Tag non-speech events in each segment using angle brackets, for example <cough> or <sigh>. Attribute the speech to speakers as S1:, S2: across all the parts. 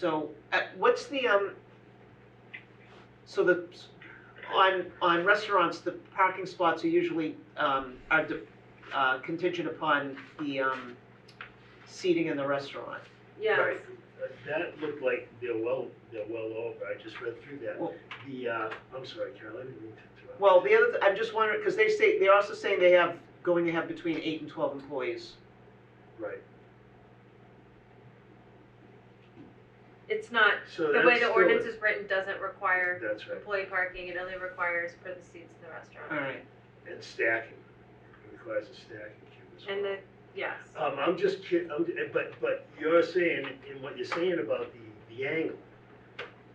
S1: So, uh, what's the, um, so the, on, on restaurants, the parking spots are usually, um, are de- uh, contingent upon the, um, seating in the restaurant.
S2: Yes,
S3: Right. Uh, That looked like they're well, they're well over, I just read through that.
S2: Oh.
S1: Well-
S3: The, uh, I'm sorry, Carol, I didn't mean to interrupt.
S1: Well, the other, I'm just wondering, because they say, they're also saying they have, going to have between eight and twelve employees.
S3: Right,
S2: it's not,
S3: so
S2: the
S3: that's
S2: way the
S3: still-
S2: ordinance is written doesn't require
S3: That's right,
S2: employee parking, it only requires for the seats in the
S1: All
S2: restaurant.
S1: right,
S3: and stacking, it requires a stacking queue as well.
S2: And the, yes,
S3: Um, I'm just kid, I'm, eh, but, but you're saying, and what you're saying about the, the angle,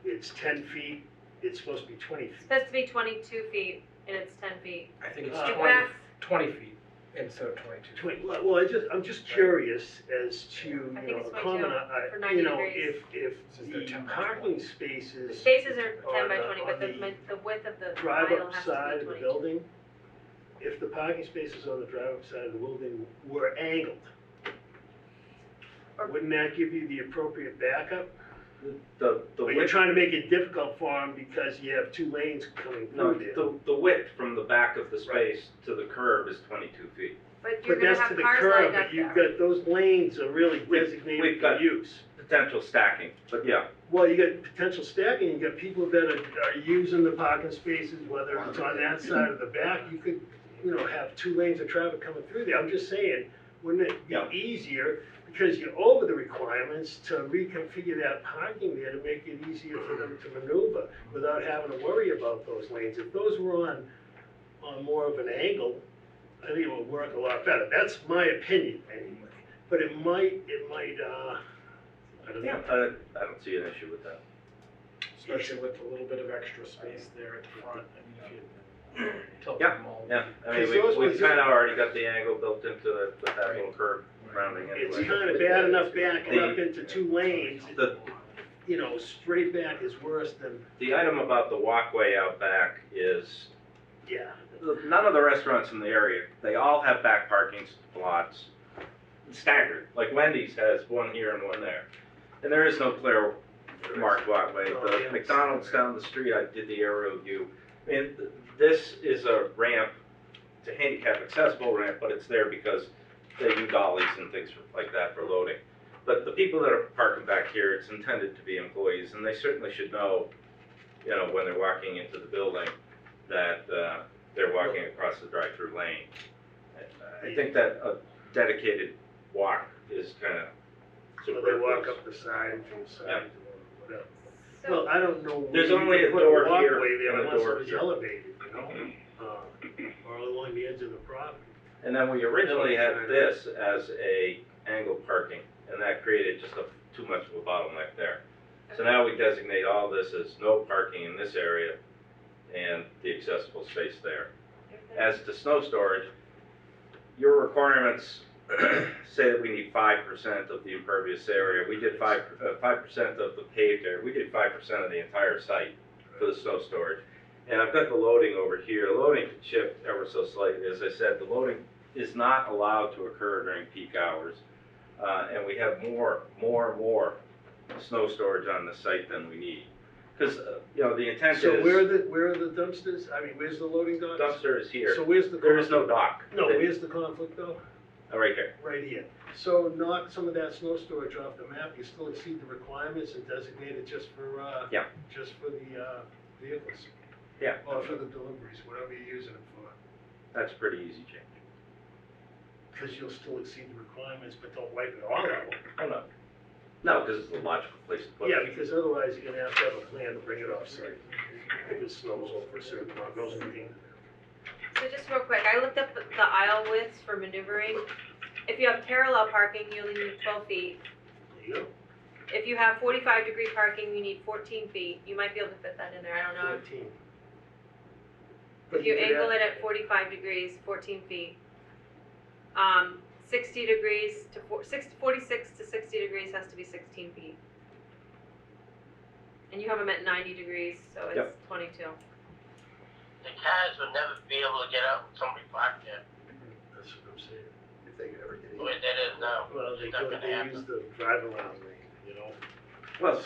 S3: it's ten feet, it's supposed to be twenty
S2: it's
S3: feet.
S2: supposed to be twenty-two feet and it's ten feet.
S4: I think it's
S3: Uh,
S4: 20,
S2: That's-
S4: 20 feet instead of 22.
S3: Twen- well, well, I just, I'm just curious as to, you
S2: I think
S3: know,
S2: it's
S3: a comment,
S2: 22
S3: I,
S2: for
S3: I- you
S2: 90
S3: know,
S2: degrees.
S3: if, if
S4: This is their
S3: the
S4: 10 by
S3: parking
S4: 20.
S3: spaces.
S2: The spaces are ten
S3: on
S2: by
S3: the-
S2: twenty,
S3: on
S2: but the,
S3: the
S2: mi- the width of the
S3: drive
S2: aisle
S3: up
S2: has to
S3: side
S2: be
S3: of the
S2: twenty-two.
S3: building, if the parking spaces on the drive up side of the building were angled,
S2: Or-
S3: wouldn't that give you the appropriate backup?
S5: The, the
S3: But you're
S5: width,
S3: trying to make it difficult for them because you have two lanes coming
S5: no,
S3: through there.
S5: the, the width from the back of the
S3: Right.
S5: space to the curb is twenty-two feet.
S2: But you're gonna
S3: But that's to
S2: have
S3: the
S2: cars lined
S3: curb,
S2: up
S3: but you've
S2: there.
S3: got, those lanes are really
S5: We've-
S3: designated
S5: we've
S3: for
S5: got-
S3: use.
S5: Potential stacking, but yeah,
S3: Well, you got potential stacking, you got people that are, are using the parking spaces, whether it's on that side or the back, you could, you know, have two lanes of traffic coming through there, I'm just saying, wouldn't it
S5: Yeah.
S3: be easier, because you're over the requirements, to reconfigure that parking there to make it easier for them to maneuver, without having to worry about those lanes, if those were on, on more of an angle, I think it would work a lot better, that's my opinion, anyway, but it might, it might, uh, I don't know.
S5: yeah, I, I don't see an issue with that.
S4: Especially with a little bit of extra space there at the front. I mean, if you tilt
S5: Yeah,
S4: them all.
S5: Yeah, I
S3: Because
S5: mean, we,
S3: those
S5: we
S3: ones-
S5: kinda already got the angle built into it with that little curb
S4: Right.
S5: rounding anyway.
S3: It's kind of bad enough backing up into two lanes,
S5: The-
S3: you know, straight back is worse than,
S5: The item about the walkway out back is,
S3: yeah.
S5: none of the restaurants in the area, they all have back parking lots staggered. Like Wendy's has one here and one there. And there is no clear marked walkway. The McDonald's down the street, I did the aerial view. I mean, th- this is a ramp, it's a handicap accessible ramp, but it's there because they do dollies and things like that for loading. But the people that are parking back here, it's intended to be employees, and they certainly should know, you know, when they're walking into the building, that, uh, they're walking across the drive-through lane. uh, I- I think that a dedicated walk is kind of
S3: So they walk up the side and from the side
S5: Yeah.
S3: or whatever.
S2: So,
S3: Well, I don't know. where
S5: There's
S3: you
S5: only
S3: could
S5: a
S3: put
S5: door here
S3: walkway there
S5: and a
S3: Unless
S5: door
S3: it was
S5: here. Mm-hmm.
S3: elevated, you know, uh, or along the edge of the property.
S5: And then we originally had this as a angled parking, and that created just a, too much of a bottleneck there. So now we designate all this as no parking in this area and the accessible space there.
S2: if the-
S5: As to snow storage, your requirements <clears throat> say that we need five percent of the impervious area. We did five, uh, five percent of the paved area, we did five percent of the entire site for the snow storage. And I've got the loading over here, loading can shift ever so slightly, as I said, the loading is not allowed to occur during peak hours. Uh, and we have more, more, more snow storage on the site than we need. Cause, uh, you know, the intent
S3: So where are
S5: is
S3: the, where are the dumpsters? I mean, where's the loading docks?
S5: dumpster is here,
S3: So where's the?
S5: there is no
S3: conflict?
S5: dock.
S3: No,
S5: They-
S3: where's the conflict though?
S5: Oh, Right here,
S3: Right here. So knock some of that snow storage off the map, you still exceed the requirements and designate it just for, uh,
S5: Yeah.
S3: just for the, uh, vehicles,
S5: yeah,
S3: or for the deliveries, whatever you're using it for.
S5: that's pretty easy change.
S3: Cause you'll still exceed the requirements, but don't wipe it all out.
S5: Oh, no. No, because it's a logical place to put it.
S3: Yeah, because otherwise you're gonna have to have a plan to bring it off site. If it snows over a certain amount, goes in the-
S2: So just real quick, I looked up the the aisle widths for maneuvering. If you have parallel parking, you only need twelve feet.
S3: there you go.
S2: If you have forty-five degree parking, you need fourteen feet. You might be able to fit that in there, I don't know.
S3: Fourteen.
S2: If you
S3: could
S2: angle it
S3: add-
S2: at forty-five degrees, fourteen feet. Um, sixty degrees to four, six, forty-six to sixty degrees has to be sixteen feet. And you have them at ninety degrees, so it's
S5: Yep.
S2: twenty-two.
S6: the cars would never be able to get out when somebody parked there,
S3: That's what I'm saying.
S4: If they could ever get
S6: the way that is now.
S3: Well, they
S6: It's not
S3: go,
S6: gonna
S3: they
S6: happen.
S3: use the drive around lane, you know?
S5: Well,